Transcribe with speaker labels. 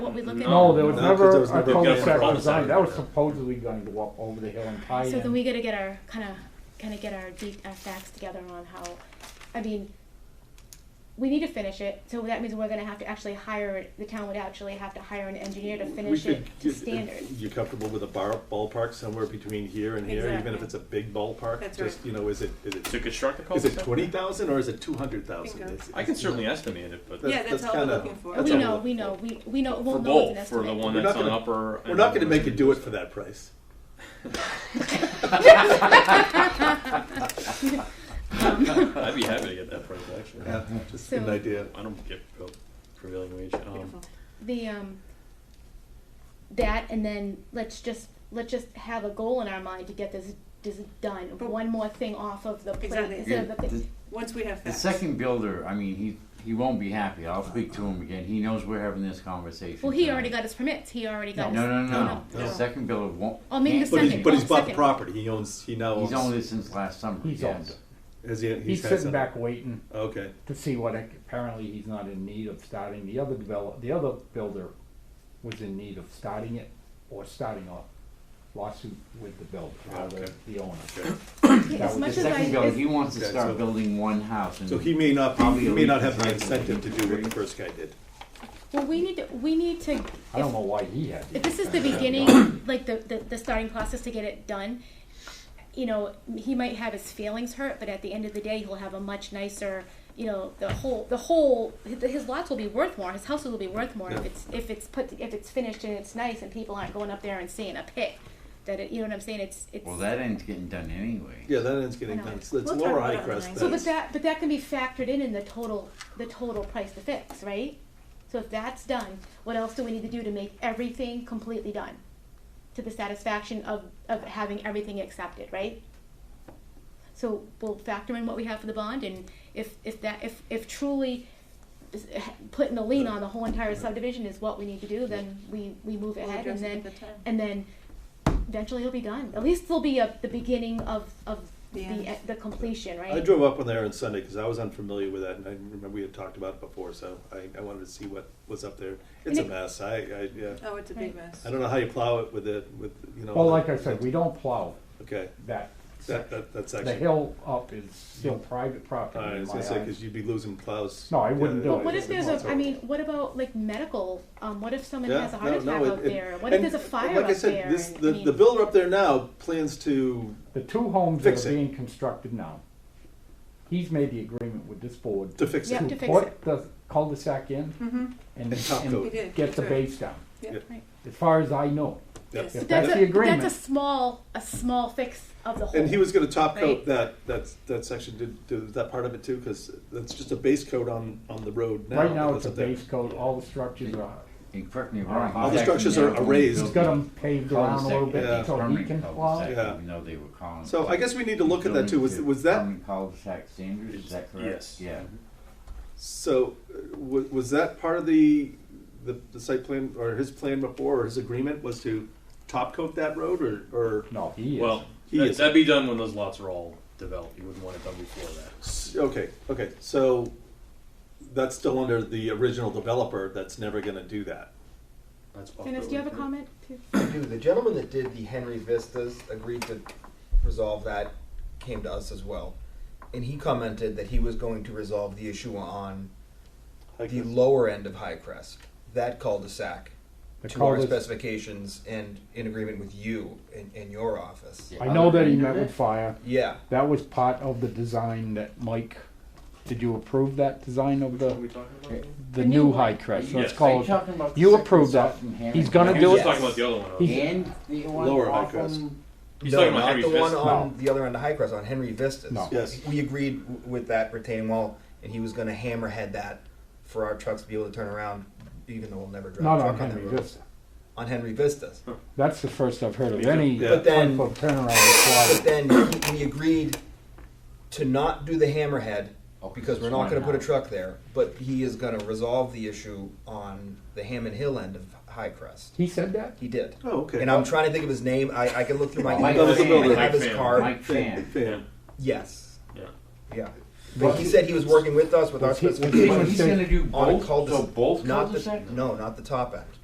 Speaker 1: what we look at?
Speaker 2: No, there was
Speaker 3: No, 'cause there
Speaker 2: never
Speaker 3: was
Speaker 2: a
Speaker 3: never a
Speaker 2: cul-de-sac
Speaker 3: cul-de-sac
Speaker 2: design, that
Speaker 3: design.
Speaker 2: was supposedly going to go up over the hill and tie
Speaker 1: So then
Speaker 2: in.
Speaker 1: we gotta get our, kinda, kinda get our deep, our facts together on how, I mean, we need to finish it, so that means we're gonna have to actually hire, the town would actually have to hire an engineer to finish
Speaker 3: We
Speaker 1: it
Speaker 3: could
Speaker 1: to
Speaker 3: get-
Speaker 1: standard.
Speaker 3: You comfortable with a bar, ballpark somewhere between here and here, even if
Speaker 4: Exactly.
Speaker 3: it's a big ballpark?
Speaker 4: That's
Speaker 3: Just,
Speaker 4: right.
Speaker 3: you know, is it, is it,
Speaker 5: To construct the
Speaker 3: is
Speaker 5: cul-de-sac?
Speaker 3: it twenty thousand or is it two hundred
Speaker 4: Bingo.
Speaker 3: thousand?
Speaker 5: I can certainly estimate it, but
Speaker 3: That's-
Speaker 4: Yeah, that's
Speaker 3: that's
Speaker 4: all we're
Speaker 3: kinda-
Speaker 4: looking for.
Speaker 3: that's
Speaker 1: We
Speaker 3: all
Speaker 1: know,
Speaker 3: we're
Speaker 1: we know,
Speaker 3: looking
Speaker 1: we, we know,
Speaker 5: for
Speaker 1: we'll know it's an
Speaker 5: both, for the
Speaker 1: estimate.
Speaker 5: one
Speaker 3: We're
Speaker 5: that's
Speaker 3: not
Speaker 5: on
Speaker 3: gonna-
Speaker 5: upper.
Speaker 3: We're
Speaker 5: and
Speaker 3: not gonna
Speaker 5: lower
Speaker 3: make you do it
Speaker 5: streets.
Speaker 3: for that price.
Speaker 5: I'd be happy to get that price actually.
Speaker 3: Yeah, just an
Speaker 1: So-
Speaker 3: idea.
Speaker 5: I don't get pre- prevailing wage. Um,
Speaker 4: Beautiful.
Speaker 1: The, um, that, and then let's just, let's just have a goal in our mind to get this, this done,
Speaker 4: But-
Speaker 1: one more thing off of the plate,
Speaker 4: Exactly.
Speaker 1: instead of the
Speaker 6: The,
Speaker 4: Once we have
Speaker 6: the
Speaker 4: facts.
Speaker 6: second builder, I mean, he, he won't be happy. I'll speak to him again. He knows we're having this conversation.
Speaker 1: Well, he
Speaker 6: tonight.
Speaker 1: already got his permits, he already
Speaker 6: No,
Speaker 1: got his.
Speaker 6: no, no, no.
Speaker 3: no.
Speaker 6: The second builder won't.
Speaker 1: Oh, maybe
Speaker 6: can't
Speaker 1: the
Speaker 3: But
Speaker 6: be-
Speaker 3: he's,
Speaker 1: Second,
Speaker 3: but he's
Speaker 1: one
Speaker 3: bought the
Speaker 1: second.
Speaker 3: property, he owns, he now owns.
Speaker 6: He's owned it since last summer.
Speaker 2: He's
Speaker 6: yes.
Speaker 2: owned it.
Speaker 3: Has he-
Speaker 2: He's
Speaker 3: had
Speaker 2: sitting
Speaker 3: some-
Speaker 2: back waiting
Speaker 3: Okay,
Speaker 2: to see what, apparently he's not in need of starting, the other develop, the other builder was in need of starting it or starting a lawsuit with the builder, or the,
Speaker 3: Okay.
Speaker 2: the owner.
Speaker 3: okay.
Speaker 1: Okay,
Speaker 2: That
Speaker 1: As
Speaker 2: was
Speaker 1: much
Speaker 6: The
Speaker 1: as I,
Speaker 6: second builder,
Speaker 1: as
Speaker 6: he wants to
Speaker 3: Okay, so-
Speaker 6: start building one house. and-
Speaker 3: So he may not, be- he may not have the
Speaker 6: Probably a
Speaker 3: incentive to do what the
Speaker 6: reason.
Speaker 3: first guy did.
Speaker 1: Well, we need to, we need to,
Speaker 2: I don't know why he had
Speaker 1: if
Speaker 2: it.
Speaker 1: this is the beginning, like the, the, the starting process to get it done, you know, he might have his feelings hurt, but at the end of the day, he'll have a much nicer, you know, the whole, the whole, his lots will be worth more, his houses will be worth more if
Speaker 3: Yeah.
Speaker 1: it's, if it's put, if it's finished and it's nice and people aren't going up there and seeing a pit. That it, you know what I'm saying, it's, it's.
Speaker 6: Well, that end's getting done anyway.
Speaker 3: Yeah, that ends getting
Speaker 1: I know.
Speaker 3: done, So let's
Speaker 4: We'll talk
Speaker 3: lower
Speaker 4: about it
Speaker 3: Highcrest
Speaker 4: online.
Speaker 1: So, but
Speaker 3: then.
Speaker 1: that, but that can be factored in in the total, the total price to fix, right? So if that's done, what else do we need to do to make everything completely done? To the satisfaction of, of having everything accepted, right? So we'll factor in what we have for the bond and if, if that, if, if truly is- eh, putting a lien on the whole entire subdivision is what we need to do, then we, we move
Speaker 4: We'll
Speaker 1: ahead and
Speaker 4: address it
Speaker 1: then,
Speaker 4: at the time.
Speaker 1: and then eventually it'll be done. At least there'll be a, the beginning of, of
Speaker 4: The
Speaker 1: the,
Speaker 4: end.
Speaker 1: the completion, right?
Speaker 3: I drove up on there on Sunday because I was unfamiliar with that, and I remember we had talked about it before, so I, I wanted to see what was up there. It's a
Speaker 1: And it-
Speaker 3: mess. I, I, yeah.
Speaker 4: Oh, it's a big
Speaker 1: Right.
Speaker 4: mess.
Speaker 3: I don't know how you plow it with it, with, you know.
Speaker 2: Well, like I said, we don't plow
Speaker 3: Okay,
Speaker 2: that
Speaker 3: that,
Speaker 2: section.
Speaker 3: that, that
Speaker 2: The
Speaker 3: section.
Speaker 2: hill up is still private property
Speaker 3: I
Speaker 2: in
Speaker 3: was
Speaker 2: my
Speaker 3: gonna say, because
Speaker 2: eyes.
Speaker 3: you'd be losing plows.
Speaker 2: No, I wouldn't
Speaker 3: Yeah,
Speaker 2: do
Speaker 3: yeah,
Speaker 2: it.
Speaker 1: But what
Speaker 3: it's
Speaker 1: if there's a, I
Speaker 3: horrible.
Speaker 1: mean, what about like medical, um, what if someone
Speaker 3: Yeah,
Speaker 1: has a heart
Speaker 3: no, no,
Speaker 1: attack
Speaker 3: it-
Speaker 1: out
Speaker 3: it-
Speaker 1: there? What if
Speaker 3: and
Speaker 1: there's a fire
Speaker 3: like I
Speaker 1: up
Speaker 3: said,
Speaker 1: there?
Speaker 3: this-
Speaker 1: And, I
Speaker 3: The,
Speaker 1: mean,
Speaker 3: the builder up there now plans to,
Speaker 2: The two homes that
Speaker 3: Fix
Speaker 2: are
Speaker 3: it.
Speaker 2: being constructed now, he's made the agreement with this board
Speaker 3: to fix
Speaker 1: Yep.
Speaker 3: it.
Speaker 1: to fix
Speaker 2: put the cul-de-sac in
Speaker 4: Mm-hmm,
Speaker 2: and,
Speaker 3: And top
Speaker 2: and
Speaker 3: coat.
Speaker 4: He did,
Speaker 2: get the
Speaker 4: that's right.
Speaker 2: base down,
Speaker 4: yeah.
Speaker 3: Yeah.
Speaker 2: as far as I know.
Speaker 3: Yep.
Speaker 4: Yes.
Speaker 2: If
Speaker 1: That's
Speaker 2: that's
Speaker 1: a-
Speaker 2: the
Speaker 1: That's a
Speaker 2: agreement,
Speaker 1: small, a small fix of the whole.
Speaker 3: And he was gonna top coat
Speaker 1: Right.
Speaker 3: that, that, that section, did, did that part of it too, because that's just a base coat on, on the road now.
Speaker 2: right now it's
Speaker 3: that's
Speaker 2: a
Speaker 3: up there.
Speaker 2: base coat, all the structures are,
Speaker 6: And correct me if I'm wrong.
Speaker 2: All the
Speaker 6: back in
Speaker 3: structures
Speaker 6: there
Speaker 3: are
Speaker 6: when he
Speaker 3: raised.
Speaker 2: he's
Speaker 6: built
Speaker 2: got
Speaker 6: the
Speaker 2: them paved around a little
Speaker 3: Yeah.
Speaker 2: bit so he
Speaker 6: permanent
Speaker 2: can
Speaker 6: cul-de-sac,
Speaker 2: plow.
Speaker 3: Yeah.
Speaker 6: Even though they were calling.
Speaker 3: So
Speaker 6: it-
Speaker 3: I guess we need to look at that too, was,
Speaker 6: Building
Speaker 3: was that,
Speaker 2: Um,
Speaker 6: Permanent cul-de-sac standards, is that correct?
Speaker 5: Yes.
Speaker 6: Yeah.
Speaker 3: So, uh, wa- was that part of the, the, the site plan, or his plan before, or his agreement was to top coat that road, or, or,
Speaker 2: No, he is.
Speaker 5: well,
Speaker 3: He
Speaker 5: that,
Speaker 3: is-
Speaker 5: that'd be done when those lots are all developed. You wouldn't want it done before that.
Speaker 3: s- okay, okay, so that's still under the original developer that's never gonna do that.
Speaker 5: That's
Speaker 1: Dennis, do you have a comment?
Speaker 7: I do. The gentleman that did the Henry Vistas agreed to resolve that, came to us as well. And he commented that he was going to resolve the issue on the lower end of High Crest, that cul-de-sac,
Speaker 2: The
Speaker 7: to our
Speaker 2: cul-de-
Speaker 7: specifications and in agreement with you in, in your office.
Speaker 2: I know that he met with fire,
Speaker 7: Yeah,
Speaker 2: that was part of the design that Mike, did you approve that design of the, the new high crest? Let's
Speaker 5: Yes.
Speaker 2: call
Speaker 6: Are
Speaker 2: it-
Speaker 6: you talking about the
Speaker 2: You
Speaker 6: second
Speaker 2: approved that,
Speaker 6: shot from Harry?
Speaker 2: he's gonna
Speaker 5: He
Speaker 2: do
Speaker 5: was
Speaker 2: it.
Speaker 5: talking about the other one.
Speaker 2: He-
Speaker 6: And the one
Speaker 3: Lower
Speaker 6: off
Speaker 3: Highcrest.
Speaker 6: on-
Speaker 5: He's
Speaker 7: no,
Speaker 5: talking about
Speaker 7: not
Speaker 5: Henry's
Speaker 7: the one
Speaker 5: Vista.
Speaker 7: on the other end of High Crest, on Henry Vistas.
Speaker 2: No.
Speaker 3: Yes.
Speaker 7: We agreed w- with that retaining wall, and he was going to hammerhead that for our trucks to be able to turn around, even though we'll never drive
Speaker 2: Not
Speaker 7: a truck
Speaker 2: on Henry
Speaker 7: that road.
Speaker 2: Vista.
Speaker 7: On Henry Vistas.
Speaker 2: That's the first I've heard of
Speaker 5: Me too.
Speaker 2: any
Speaker 3: Yeah.
Speaker 2: type
Speaker 7: But then-
Speaker 2: of turnaround required.
Speaker 7: But then he- we agreed to not do the hammerhead because we're not gonna put a truck there, but he is gonna resolve the issue on the Hammond Hill end of High Crest.
Speaker 2: He said that?
Speaker 7: He did.
Speaker 3: Oh, okay.
Speaker 7: And I'm trying to think of his name, I, I can look through my
Speaker 6: Mike
Speaker 7: emails,
Speaker 6: Fan.
Speaker 7: I have his
Speaker 5: Mike Fan.
Speaker 7: card,
Speaker 6: Mike Fan.
Speaker 3: Fan.
Speaker 7: yes,
Speaker 5: Yeah.
Speaker 7: yeah. But he said he was working with us with our
Speaker 2: Was he- was he-
Speaker 6: But
Speaker 7: specifications
Speaker 6: he's gonna do
Speaker 7: on a
Speaker 6: both, so
Speaker 7: cul-de-sac.
Speaker 6: both
Speaker 7: Not the-
Speaker 6: cul-de-sacs?
Speaker 7: No, not the top end,